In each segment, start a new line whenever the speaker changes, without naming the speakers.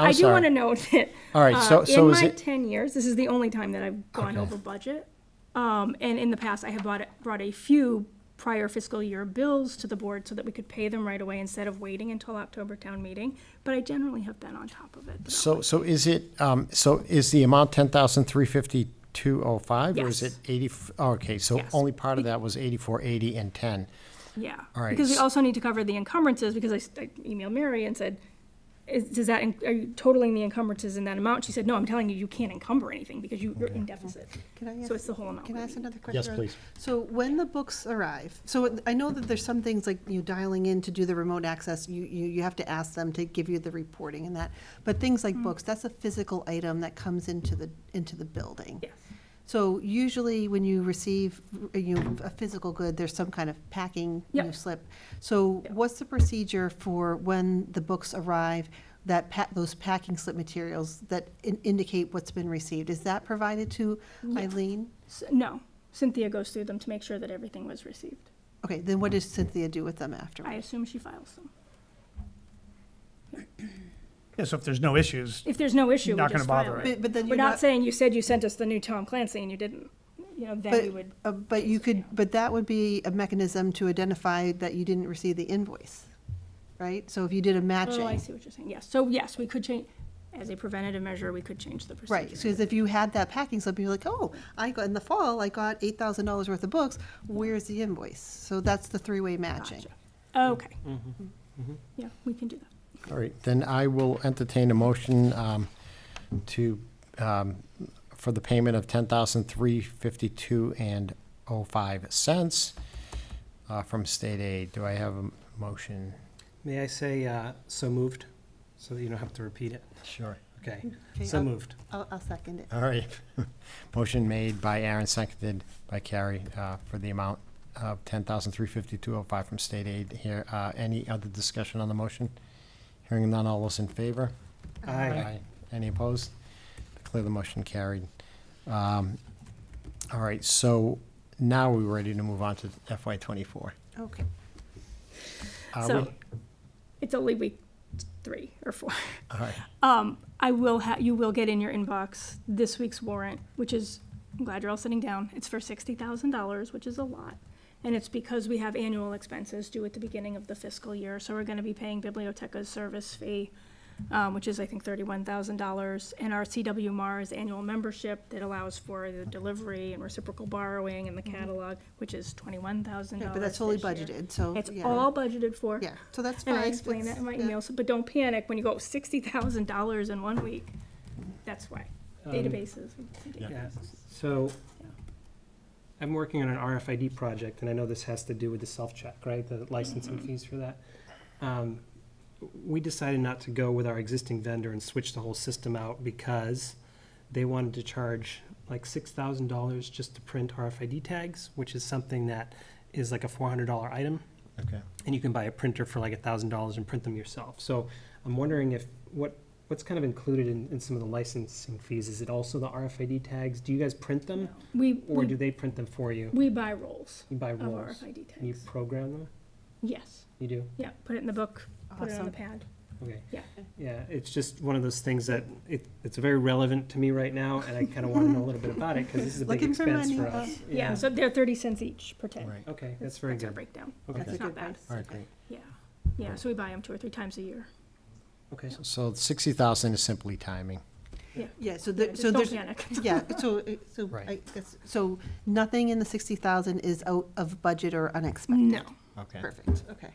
I'm
I do
sorry.
want to note that.
All right,
uh,
so- so
in
is
my
it-
ten years, this is the only time that I've gone over budget. Um, and in the past, I have bought, brought a few prior fiscal year bills to the board so that we could pay them right away instead of waiting until October town meeting. But I generally have been on top of it.
So, so is it, um, so is the amount ten thousand three fifty two oh five? Or is
Yes.
it eighty, oh, okay, so
Yes.
only part of that was eighty-four eighty and ten.
Yeah.
All right,
Because we
s-
also need to cover the encumbrances, because I s- I emailed Mary and said, is, does that, en- are you totaling the encumbrances in that amount? She said, no, I'm telling you, you can't encumber anything because you, you're in deficit.
Can I
So
ask-
it's the whole amount.
Can I
we
ask
need.
another question?
Yes,
Rose?
please.
So when the books arrive, so I know that there's some things like, you know, dialing in to do the remote access, you, you, you have to ask them to give you the reporting and that. But things
Mm.
like books, that's a physical item that comes into the, into the building.
Yes.
So usually when you receive, uh, you know, a physical good, there's some kind of packing, you
Yep.
know, slip. So what's the procedure for when the books arrive, that pa, those packing slip materials that in- indicate what's been received? Is that provided to Eileen?
S- No, Cynthia goes through them to make sure that everything was received.
Okay, then what does Cynthia do with them
I
afterwards?
assume she files them.
Yeah, so if there's no issues,
If there's no issue, we
Not gonna
just file
bother
it.
But-
it.
but then
We're
you're
not
not-
saying you said you sent us the new Tom Clancy and you didn't, you know, then we
But,
would,
uh, but you could, but that would be a mechanism to identify that you didn't receive the invoice, right? So if you did a
oh, I
matching,
see what you're saying, yes. So yes, we could change, as a preventative measure, we could change the procedure.
right, because if you had that packing slip, you're like, oh, I got, in the fall, I got eight thousand dollars worth of books, where's the invoice? So that's the three-way matching.
Okay. Yeah, we can do that.
All right, then I will entertain a motion, um, to, um, for the payment of ten thousand three fifty-two and oh five cents, uh, from state aid. Do I have a motion?
May I say, uh, so moved, so that you don't have to repeat it?
Sure.
Okay,
Okay,
so
I'll-
moved.
I'll, I'll second it.
All right. Motion made by Aaron, seconded by Carrie, uh, for the amount of ten thousand three fifty-two oh five from state aid here. Uh, any other discussion on the motion? Hearing none, all those in favor?
Aye.
Any opposed? Declare the motion carried. Um, all right, so now we're ready to move on to FY twenty-four.
Okay,
Are we?
So it's only week three or four.
All right,
Um, I will ha, you will get in your inbox this week's warrant, which is, I'm glad you're all sitting down. It's for sixty thousand dollars, which is a lot. And it's because we have annual expenses due at the beginning of the fiscal year, so we're gonna be paying Biblioteca's service fee, um, which is, I think, thirty-one thousand dollars, and our CW Mars annual membership that allows for the delivery and reciprocal borrowing and the catalog, which is twenty-one thousand
Yeah,
dollars
Mm-hmm. but that's totally
this year.
budgeted, so.
It's
yeah.
all budgeted for.
Yeah, so that's fine.
And I explained that
It's-
in my
yeah.
email, so, but don't panic when you go sixty thousand dollars in one week. That's why, databases.
Um, Yeah, so, I'm working on an RFID project, and I know this has to do with the self-check, right? The licensing fees for that. Um, We decided not to go with our existing vendor and switch the whole system out because they wanted to charge like six thousand dollars just to print RFID tags, which is something that is like a four hundred dollar item.
okay.
and you can buy a printer for like a thousand dollars and print them yourself. So I'm wondering if what what's kind of included in, in some of the licensing fees? Is it also the RFID tags? Do you guys print them,
We,
or do
we, Um,
they print them for you?
we buy rolls
You buy
of
rolls.
RFID
And you
tags.
program them.
Yes,
You do.
yeah, put it in the book, put it on the pad.
Okay.
Yeah.
Yeah. It's just one of those things that it, it's very relevant to me right now, and I kind of want to know a little bit about it because this is a big
Looking for
expense
money,
for
huh?
us.
Yeah, so they're thirty cents each per
All
tag.
right,
Okay, that's very
That's our
good.
breakdown.
Okay.
That's a
It's not
good
bad.
price.
all right, great.
Yeah, yeah, so we buy them two or three times a year.
Okay.
So sixty thousand is simply timing.
Yeah, so
Yeah,
there,
just
so
don't
there's.
panic.
Yeah, so, it- so,
Right.
I guess, so nothing in the sixty thousand is out of budget or unexpected?
No,
Okay.
Perfect, okay.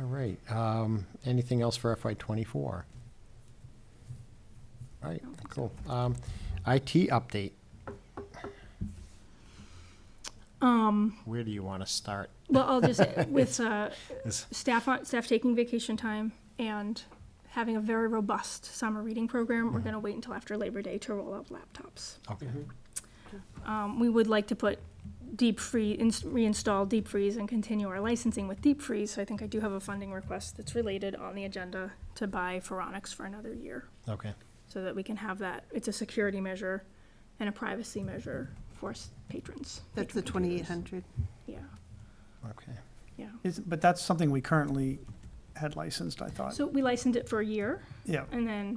All right, um, anything else for FY twenty-four? All right,
don't think so.
cool. Um, IT update,
um,
where do you want to start?
well, I'll just, with, uh,
Is-
staff on, staff taking vacation time and having a very robust summer reading program. We're gonna wait until after Labor Day to roll out laptops.
Okay,
Um, we would like to put deep free, ins- reinstall deep freeze and continue our licensing with deep freeze. So I think I do have a funding request that's related on the agenda to buy Pharonics for another year.
okay,
So that we can have that, it's a security measure and a privacy measure for s- patrons.
That's the
patron computers.
twenty-eight hundred.
Yeah,
okay.
yeah.
is, but that's something we currently
had licensed, I thought.
So we licensed it for a year
Yeah.
and then